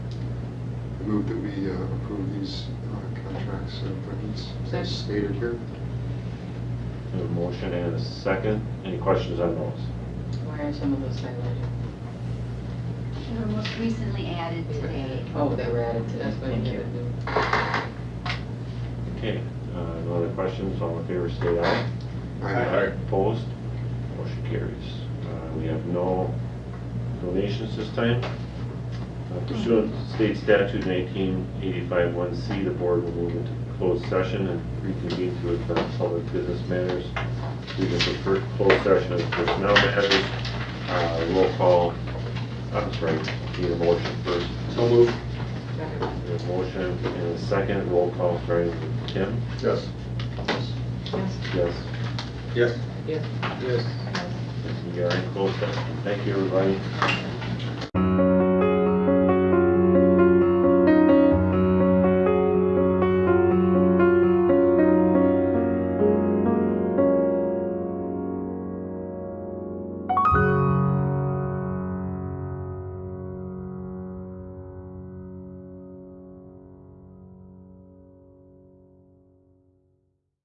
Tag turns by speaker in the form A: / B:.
A: move that we uh, approve these uh, contracts and appointments as stated here.
B: A motion and a second. Any questions on those?
C: Why are some of those highlighted?
D: They were most recently added today.
C: Oh, they were added to, that's what you gotta do.
B: Okay, uh, no other questions, all in favor, state aye. Opposed? Motion carries. Uh, We have no donations this time. Uh, Pursuant to state statute 1985-1C, the board will move into closed session and reconvene to advance public business matters. We can prefer closed session as personnel matters. Uh, Roll call, I'm sorry, need a motion first.
A: So moved.
B: We have motion and a second, roll call starting with Kim.
A: Yes.
C: Yes.
B: Yes.
A: Yes.
C: Yes.
A: Yes.
B: We are in closed session. Thank you, everybody.